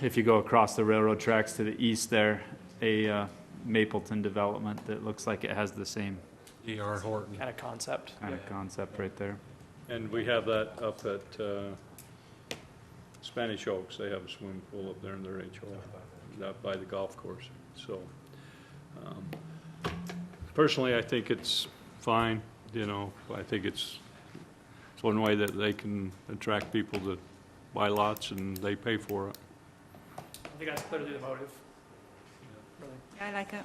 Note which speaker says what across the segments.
Speaker 1: If you go across the railroad tracks to the east there, a uh, Mapleton development that looks like it has the same
Speaker 2: D.R. Horton.
Speaker 3: kind of concept.
Speaker 1: kind of concept right there.
Speaker 4: And we have that up at uh, Spanish Oaks, they have a swimming pool up there in their HO, up by the golf course, so. um, Personally, I think it's fine, you know, I think it's, it's one way that they can attract people to buy lots and they pay for it.
Speaker 3: I think that's clearly the motive. Really.
Speaker 5: I like it.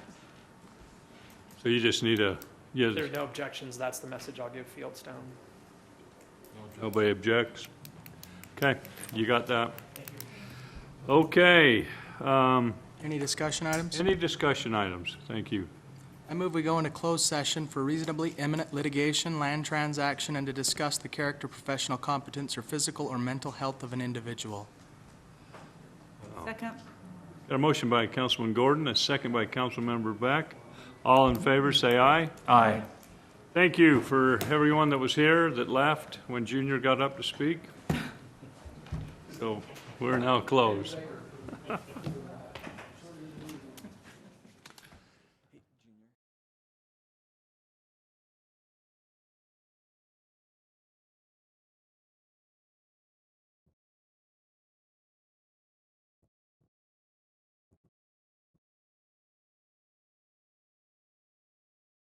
Speaker 4: So you just need a,
Speaker 3: If there
Speaker 4: yes,
Speaker 3: are no objections, that's the message I'll give Fieldstone.
Speaker 4: nobody objects? Okay, you got that? Okay, um,
Speaker 6: Any discussion items?
Speaker 4: any discussion items? Thank you.
Speaker 6: I move we go into closed session for reasonably imminent litigation, land transaction, and to discuss the character, professional competence, or physical or mental health of an individual.
Speaker 5: Second.
Speaker 4: Got a motion by Councilman Gordon, a second by Councilmember Beck. All in favor, say aye.
Speaker 1: Aye.
Speaker 4: Thank you for everyone that was here that left when Junior got up to speak. So we're now closed.